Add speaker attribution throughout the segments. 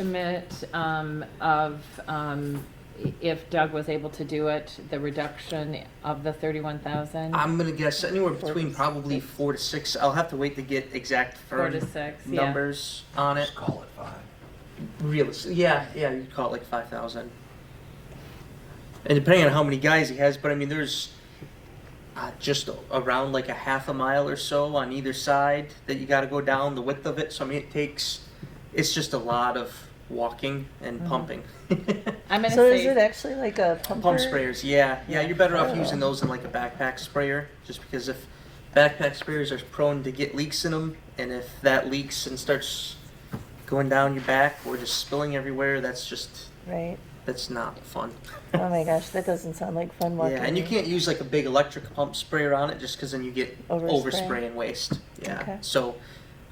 Speaker 1: estimate um, of, um, i- if Doug was able to do it, the reduction of the 31,000?
Speaker 2: I'm gonna guess anywhere between probably four to six. I'll have to wait to get exact
Speaker 1: Four to
Speaker 2: firm
Speaker 1: six, yeah.
Speaker 2: numbers on it.
Speaker 3: Just call it five.
Speaker 2: Realistic, yeah, yeah, you'd call it like five thousand. And depending on how many guys he has, but I mean, there's uh, just around like a half a mile or so on either side that you got to go down the width of it. So I mean, it takes, it's just a lot of walking and
Speaker 1: Mhm.
Speaker 2: pumping.
Speaker 1: I'm going to
Speaker 4: So is it
Speaker 1: say,
Speaker 4: actually like a pumper?
Speaker 2: Pump sprayers, yeah, yeah.
Speaker 1: Yeah.
Speaker 2: You're better off
Speaker 4: Oh.
Speaker 2: using those than like a backpack sprayer, just because if backpack sprayers are prone to get leaks in them, and if that leaks and starts going down your back or just spilling everywhere, that's just
Speaker 4: Right.
Speaker 2: that's not fun.
Speaker 4: Oh my gosh, that doesn't sound like fun walking.
Speaker 2: yeah, and you can't use like a big electric pump sprayer on it just because then you get
Speaker 4: Overspray.
Speaker 2: overspray and waste. Yeah.
Speaker 4: Okay.
Speaker 2: So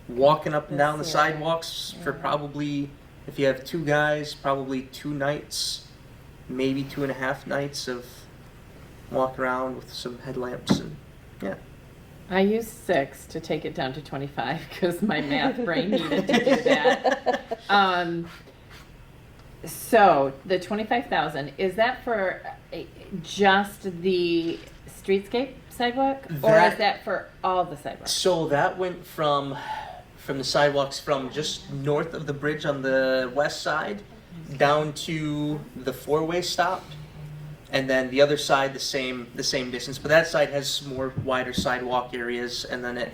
Speaker 2: walking up and
Speaker 1: That's
Speaker 2: down the
Speaker 1: the-
Speaker 2: sidewalks for
Speaker 4: yeah.
Speaker 2: probably if you have two guys, probably two nights, maybe two and a half nights of walk around with some headlamps and yeah.
Speaker 1: I used six to take it down to 25 because my math brain needed to do that. Um, so the 25,000, is that for uh, just the streetscape sidewalk? Or is
Speaker 2: That-
Speaker 1: that for all the sidewalks?
Speaker 2: So that went from from the sidewalks from just north of the bridge on the west side down to the four-way stop and then the other side the same the same distance but that side has more wider sidewalk areas and then it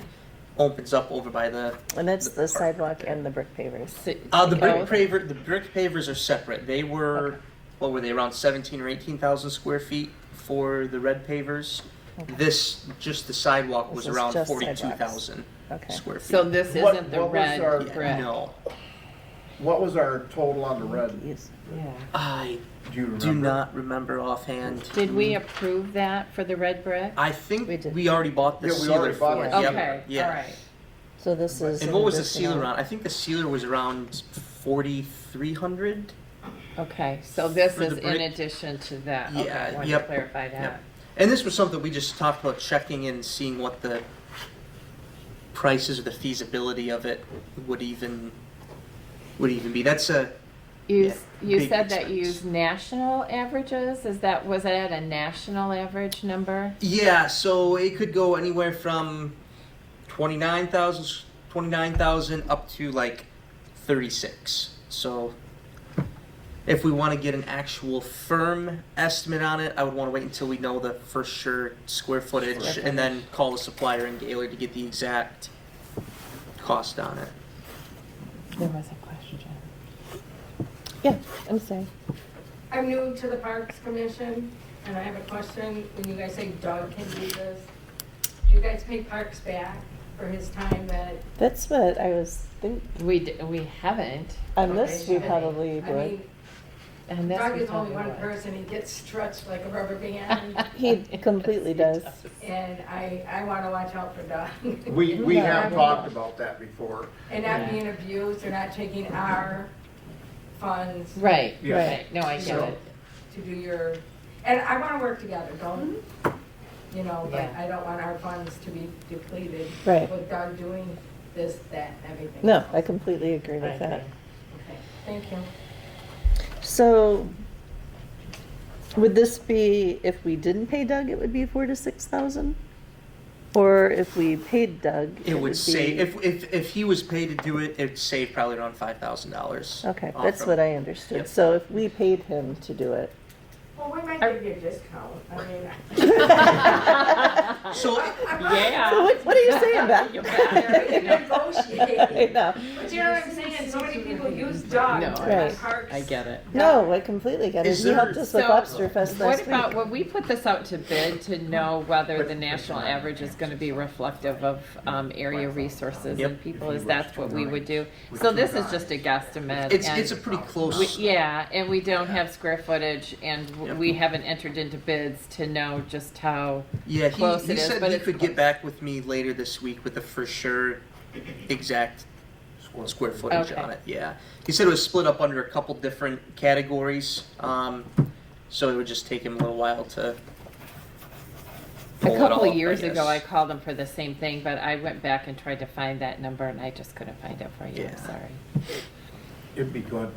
Speaker 2: opens up over by the
Speaker 4: And that's
Speaker 2: The
Speaker 4: the
Speaker 2: park.
Speaker 4: sidewalk and the brick pavers.
Speaker 1: Si-
Speaker 2: uh, the brick
Speaker 4: Oh.
Speaker 1: both?
Speaker 2: paver the brick pavers are separate they were what were they around 17 or 18,000 square feet for the red pavers
Speaker 4: Okay.
Speaker 2: this just the sidewalk was
Speaker 4: This is
Speaker 2: around
Speaker 4: just
Speaker 2: 42,000
Speaker 4: Okay.
Speaker 2: square feet
Speaker 1: So this
Speaker 3: What-
Speaker 1: isn't the
Speaker 3: what was
Speaker 1: red
Speaker 3: our-
Speaker 2: Yeah,
Speaker 1: brick?
Speaker 2: no
Speaker 3: What was our total on the red?
Speaker 4: Yes.
Speaker 2: I
Speaker 3: Do you remember?
Speaker 2: do not remember offhand.
Speaker 1: Did we approve that for the red brick?
Speaker 2: I think
Speaker 4: We did.
Speaker 2: we already bought the
Speaker 3: Yeah, we
Speaker 2: sealer
Speaker 3: already bought
Speaker 2: for it.
Speaker 3: it.
Speaker 2: Yep.
Speaker 1: Okay, all
Speaker 2: Yeah.
Speaker 1: right.
Speaker 4: So this is.
Speaker 2: And
Speaker 4: an
Speaker 2: what was the
Speaker 4: additional-
Speaker 2: sealer on? I think the sealer was around 4,300.
Speaker 1: Okay, so this
Speaker 2: For the
Speaker 1: is in
Speaker 2: brick?
Speaker 1: addition to that.
Speaker 2: Yeah,
Speaker 1: Okay, I wanted to
Speaker 2: yep,
Speaker 1: clarify that.
Speaker 2: yep. And this was something we just talked about checking and seeing what the prices or the feasibility of it would even would even be. That's a
Speaker 1: You,
Speaker 2: Yeah,
Speaker 1: s- you
Speaker 2: big
Speaker 1: said that you
Speaker 2: expense.
Speaker 1: used national averages, is that, was that a national average number?
Speaker 2: Yeah, so it could go anywhere from 29,000 29,000 up to like 36. So if we want to get an actual firm estimate on it, I would want to wait until we know the for sure square footage
Speaker 4: Square
Speaker 2: and then call the supplier in Gaylor to get the exact cost on it.
Speaker 1: There was a question.
Speaker 4: Yeah, I'm sorry.
Speaker 5: I'm new to the Parks Commission, and I have a question. When you guys say Doug can do this, do you guys pay Parks back for his time that?
Speaker 4: That's what I was think,
Speaker 1: We, d- we haven't,
Speaker 4: on this, we
Speaker 5: Okay.
Speaker 4: probably
Speaker 5: I
Speaker 4: would.
Speaker 5: mean,
Speaker 1: and this
Speaker 5: Doug
Speaker 1: we
Speaker 5: is only
Speaker 1: probably
Speaker 5: one
Speaker 1: would.
Speaker 5: person, he gets stretched like a rubber band,
Speaker 4: He completely
Speaker 1: Yes, he
Speaker 4: does.
Speaker 5: and I, I want to watch out for Doug.
Speaker 3: We, we
Speaker 4: Yeah.
Speaker 3: have talked about that before.
Speaker 5: And
Speaker 1: Yeah.
Speaker 5: not being abused or not taking our funds
Speaker 1: Right,
Speaker 3: Yeah.
Speaker 1: right, no, I get
Speaker 3: So-
Speaker 1: it.
Speaker 5: to do your, and I want to work together, don't,
Speaker 4: Mm-hmm.
Speaker 5: you know, but
Speaker 1: Yeah.
Speaker 5: I don't want our funds to be depleted.
Speaker 4: Right.
Speaker 5: Without doing this, that, everything.
Speaker 4: No, I
Speaker 5: else.
Speaker 4: completely agree
Speaker 1: I
Speaker 4: with that.
Speaker 1: agree.
Speaker 5: Okay, Thank you.
Speaker 4: So would this be, if we didn't pay Doug, it would be four to six thousand? Or if we paid Doug?
Speaker 2: It would save
Speaker 4: be-
Speaker 2: if if if he was paid to do it, it would save probably around $5,000.
Speaker 4: Okay,
Speaker 2: off
Speaker 4: that's
Speaker 2: from-
Speaker 4: what I understood.
Speaker 2: Yep.
Speaker 4: So if we paid him to do it.
Speaker 5: Well, we might give you a discount, I mean.
Speaker 2: So
Speaker 5: I'm not-
Speaker 4: So
Speaker 1: Yeah.
Speaker 4: what, what are you saying,
Speaker 1: You're
Speaker 5: We can
Speaker 1: back.
Speaker 4: Beth? I
Speaker 5: negotiate,
Speaker 4: know.
Speaker 5: but you know what I'm saying, so many people use dog
Speaker 1: No,
Speaker 5: for
Speaker 4: Right.
Speaker 5: parks.
Speaker 1: I get it.
Speaker 4: No, I completely get it.
Speaker 2: Is
Speaker 4: He
Speaker 2: there-
Speaker 4: helped us with
Speaker 1: So,
Speaker 4: Lobster Fest
Speaker 1: What
Speaker 4: last
Speaker 1: about,
Speaker 4: week.
Speaker 1: when we put this out to bid to know whether the national average is gonna be reflective of, um, area resources and
Speaker 2: Yep.
Speaker 1: people, is that what we would do? So this is just a guesstimate.
Speaker 2: It's
Speaker 1: and
Speaker 2: it's a pretty close
Speaker 1: we- Yeah, and we don't have square footage, and w-
Speaker 2: Yep.
Speaker 1: we haven't entered into bids to know just how,
Speaker 2: Yeah,
Speaker 1: close
Speaker 2: he, he
Speaker 1: it is,
Speaker 2: said
Speaker 1: but
Speaker 2: he
Speaker 1: it's
Speaker 2: could
Speaker 1: close.
Speaker 2: get back with me later this week with a for sure exact square footage
Speaker 1: Okay.
Speaker 2: on it. Yeah, he said it was split up under a couple different categories, um, so it would just take him a little while to.
Speaker 1: a
Speaker 2: pull it all
Speaker 1: couple
Speaker 2: up,
Speaker 1: of years ago, I
Speaker 2: guess.
Speaker 1: called them for the same thing, but I went back and tried to find that number, and I just couldn't find it for you, I'm
Speaker 2: Yeah.
Speaker 1: sorry.
Speaker 3: it'd be good